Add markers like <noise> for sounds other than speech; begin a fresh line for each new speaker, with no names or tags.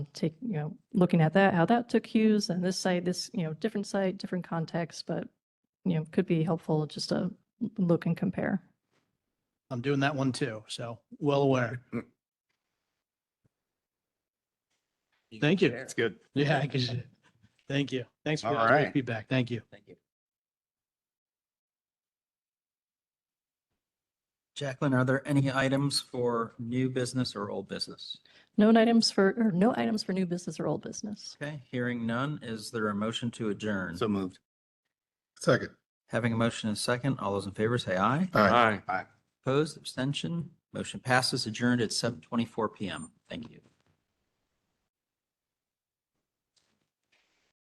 take, you know, looking at that, how that took cues and this site, this, you know, different site, different context, but, you know, could be helpful just to look and compare.
I'm doing that one too, so well aware. Thank you.
That's good.
<laughs> Yeah, I guess. Thank you. Thanks for
All
that great
right.
feedback. Thank you.
Jacqueline, are there any items for new business or old business?
Known items for, or no items for new business or old business.
Okay, hearing none, is there a motion to adjourn?
So moved.
Second.
Having a motion and a second, all those in favor say aye.
Aye.
Aye.
Opposed, abstention, motion passes adjourned at seven twenty-four PM. Thank you.